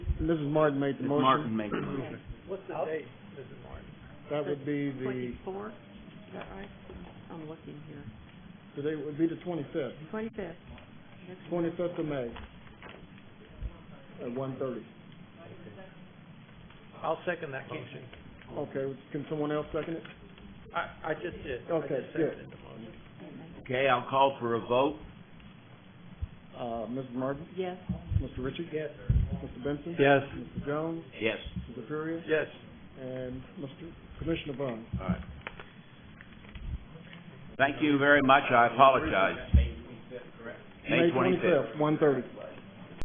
Mrs. Martin made the Ms. motion. Martin made the motion. What's the date, Mrs. Martin? That would be the, Twenty-four, is that right? I'm looking here. today would be the twenty-fifth, Twenty-fifth. twenty-fifth of May at one thirty. I'll second that motion. Okay, can someone else second it? I, I just did. I Okay, just good. seconded the motion. Okay, I'll call for a vote. Uh, Mrs. Martin, Yes. Mr. Ritchie? Yes. Mr. Benson? Yes. Mr. Jones, Yes. Mr. Furia, Yes. and Mr. Commissioner Vaughn. All right. Thank you very much. I apologize. May twenty-fifth. One thirty.